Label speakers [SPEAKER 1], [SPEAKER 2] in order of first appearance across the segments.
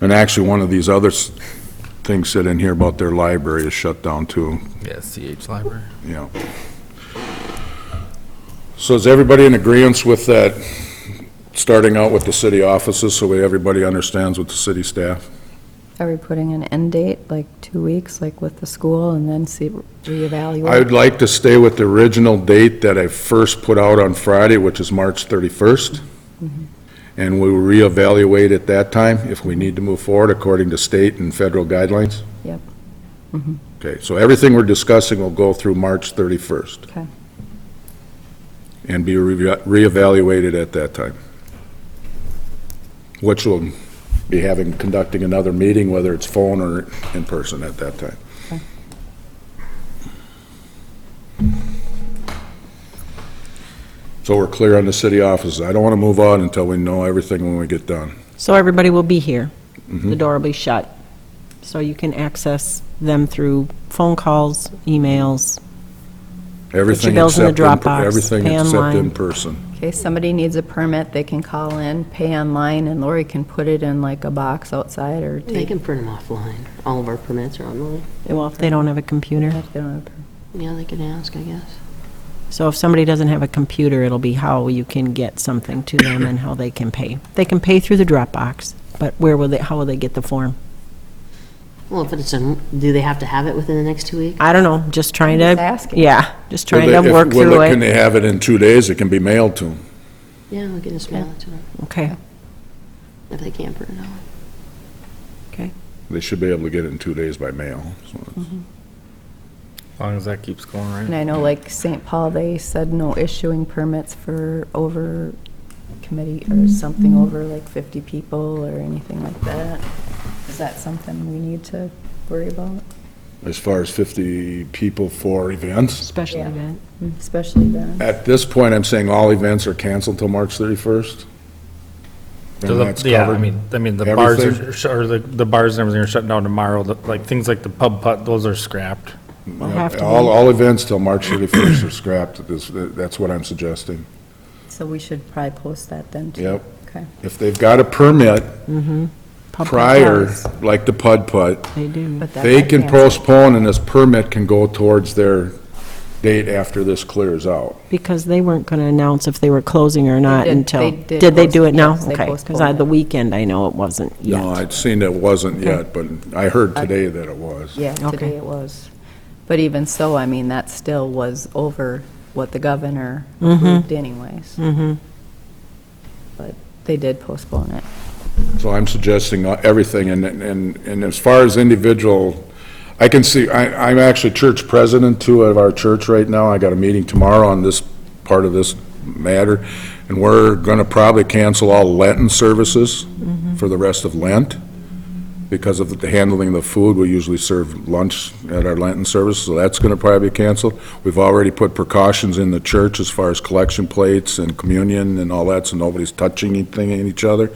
[SPEAKER 1] And actually, one of these other s- things said in here about their library is shut down too,
[SPEAKER 2] Yeah, CH Library.
[SPEAKER 1] you know. So is everybody in agreeance with that, starting out with the city offices, so we- everybody understands what the city staff?
[SPEAKER 3] Are we putting an end date, like two weeks, like with the school, and then see, reevaluate?
[SPEAKER 1] I would like to stay with the original date that I first put out on Friday, which is March 31st.
[SPEAKER 3] Mm-hmm.
[SPEAKER 1] And we'll reevaluate at that time if we need to move forward according to state and federal guidelines.
[SPEAKER 3] Yep. Mm-hmm.
[SPEAKER 1] Okay, so everything we're discussing will go through March 31st.
[SPEAKER 3] Okay.
[SPEAKER 1] And be reve- reevaluated at that time. Which will be having, conducting another meeting, whether it's phone or in person at that time. So we're clear on the city offices. I don't want to move on until we know everything when we get done.
[SPEAKER 4] So everybody will be here.
[SPEAKER 1] Mm-hmm.
[SPEAKER 4] The door will be shut. So you can access them through phone calls, emails.
[SPEAKER 1] Everything
[SPEAKER 4] bills in the
[SPEAKER 1] except, in per-
[SPEAKER 4] Dropbox,
[SPEAKER 1] everything
[SPEAKER 4] pay
[SPEAKER 1] except
[SPEAKER 4] online.
[SPEAKER 1] in person.
[SPEAKER 3] Okay, somebody needs a permit, they can call in, pay online, and Lori can put it in like a box outside or
[SPEAKER 5] They
[SPEAKER 3] take.
[SPEAKER 5] can print them offline. All of our permits are online.
[SPEAKER 4] Well, if they don't have a computer.
[SPEAKER 3] If they don't have a permit.
[SPEAKER 5] Yeah, they can ask, I guess.
[SPEAKER 4] So if somebody doesn't have a computer, it'll be how you can get something to them and how they can pay. They can pay through the Dropbox, but where will they, how will they get the form?
[SPEAKER 5] Well, if it's, in- do they have to have it within the next two weeks?
[SPEAKER 4] I don't know, just trying
[SPEAKER 3] I'm
[SPEAKER 4] to.
[SPEAKER 3] just asking.
[SPEAKER 4] Yeah, just
[SPEAKER 1] Will
[SPEAKER 4] trying
[SPEAKER 1] they-
[SPEAKER 4] to
[SPEAKER 1] if-
[SPEAKER 4] work
[SPEAKER 1] will
[SPEAKER 4] through
[SPEAKER 1] Can
[SPEAKER 4] it.
[SPEAKER 1] they have it in two days? It can be mailed to them.
[SPEAKER 5] Yeah, we can just mail it to them
[SPEAKER 4] Okay,
[SPEAKER 5] if they can't print it out.
[SPEAKER 4] okay.
[SPEAKER 1] They should be able to get it in two days by mail. so it's-
[SPEAKER 2] As long as that keeps going, right?
[SPEAKER 3] And I know like St. Paul, they said no issuing permits for over committee or something over like 50 people or anything like that. Is that something we need to worry about?
[SPEAKER 1] As far as 50 people for events,
[SPEAKER 4] Special
[SPEAKER 3] Yeah.
[SPEAKER 4] event.
[SPEAKER 3] Mm. Especially then,
[SPEAKER 1] at this point, I'm saying all events are canceled till March 31st.
[SPEAKER 2] So
[SPEAKER 1] And
[SPEAKER 2] the-
[SPEAKER 1] that's
[SPEAKER 2] Yeah, I
[SPEAKER 1] covered.
[SPEAKER 2] mean, I mean, the bars
[SPEAKER 1] Everything.
[SPEAKER 2] are, sh- or the, the bars and everything are shutting down tomorrow, the- like, things like the pub putt, those are scrapped.
[SPEAKER 4] We'll have to
[SPEAKER 1] All,
[SPEAKER 4] wait.
[SPEAKER 1] all events till March 31st are scrapped. This- That's what I'm suggesting.
[SPEAKER 3] so we should probably post that then too.
[SPEAKER 1] Yep.
[SPEAKER 3] Okay.
[SPEAKER 1] If they've got a permit
[SPEAKER 4] Pub
[SPEAKER 1] prior,
[SPEAKER 4] does.
[SPEAKER 1] like the Pud Putt,
[SPEAKER 4] They do.
[SPEAKER 3] But that
[SPEAKER 1] they
[SPEAKER 3] got
[SPEAKER 1] can
[SPEAKER 3] canceled.
[SPEAKER 1] postpone and this permit can go towards their date after this clears out.
[SPEAKER 4] Because they weren't going to announce if they were closing or not
[SPEAKER 3] did-
[SPEAKER 4] until,
[SPEAKER 3] they did
[SPEAKER 4] did they
[SPEAKER 3] post-
[SPEAKER 4] do it now?
[SPEAKER 3] yes, they
[SPEAKER 4] Okay, because
[SPEAKER 3] postponed
[SPEAKER 4] I, the
[SPEAKER 3] it.
[SPEAKER 4] weekend, I know it wasn't yet.
[SPEAKER 1] No, I'd seen that wasn't yet, but I heard today that it was.
[SPEAKER 3] Yeah, today
[SPEAKER 4] Okay.
[SPEAKER 3] it was. But even so, I mean, that still was over what the governor
[SPEAKER 5] Mm-hmm,
[SPEAKER 4] Mm-hmm.
[SPEAKER 3] approved anyways. But they did postpone it.
[SPEAKER 1] So I'm suggesting uh, everything, and, and, and as far as individual, I can see, I, I'm actually church president too of our church right now, I got a meeting tomorrow on this part of this matter, and we're gonna probably cancel all Lenten services for the rest of Lent, because of the handling of the food, we usually serve lunch at our Lenten service, so that's gonna probably be canceled. We've already put precautions in the church as far as collection plates and communion and all that, so nobody's touching anything in each other.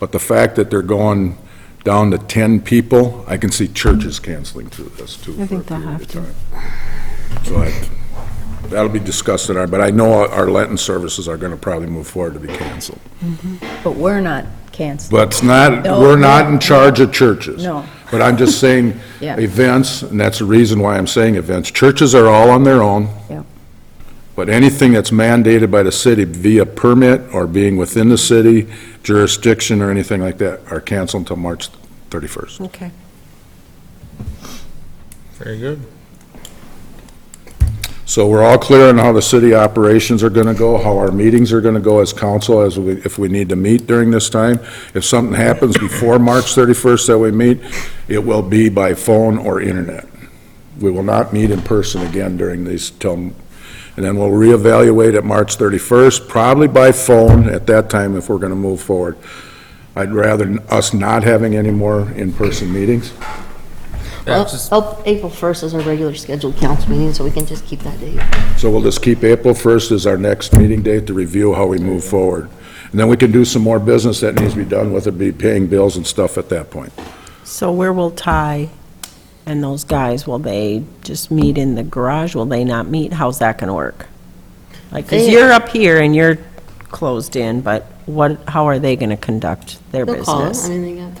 [SPEAKER 1] But the fact that they're going down to 10 people, I can see churches canceling through this too.
[SPEAKER 4] I
[SPEAKER 1] for a
[SPEAKER 4] think they'll
[SPEAKER 1] period of
[SPEAKER 4] have
[SPEAKER 1] time.
[SPEAKER 4] to.
[SPEAKER 1] So I, that'll be discussed in our, but I know our Lenten services are going to probably move forward to be canceled.
[SPEAKER 3] But we're not canceling.
[SPEAKER 1] But it's not,
[SPEAKER 3] No,
[SPEAKER 1] we're not
[SPEAKER 3] no,
[SPEAKER 1] in charge of churches.
[SPEAKER 3] No.
[SPEAKER 1] But I'm just saying,
[SPEAKER 3] Yeah.
[SPEAKER 1] events, and that's the reason why I'm saying events, churches are all on their own.
[SPEAKER 3] Yeah.
[SPEAKER 1] But anything that's mandated by the city via permit or being within the city jurisdiction or anything like that are canceled until March 31st.
[SPEAKER 4] Okay.
[SPEAKER 2] Very good.
[SPEAKER 1] So we're all clear on how the city operations are going to go, how our meetings are going to go as council, as we, if we need to meet during this time. If something happens before March 31st that we meet, it will be by phone or internet. We will not meet in person again during these, till, and then we'll reevaluate at March 31st, probably by phone at that time if we're going to move forward. I'd rather us not having any more in-person meetings.
[SPEAKER 2] Yeah, just-
[SPEAKER 5] Oh, April 1st is our regular scheduled council meeting, so we can just keep that date.
[SPEAKER 1] So we'll just keep April 1st as our next meeting date to review how we move forward. And then we can do some more business that needs to be done, whether it be paying bills and stuff at that point.
[SPEAKER 4] So where will Ty and those guys, will they just meet in the garage? Will they not meet? How's that going to work? Like, because
[SPEAKER 5] They-
[SPEAKER 4] you're up here and you're closed in, but what, how are they going to conduct their
[SPEAKER 5] They'll call. I
[SPEAKER 4] business?
[SPEAKER 5] mean, they got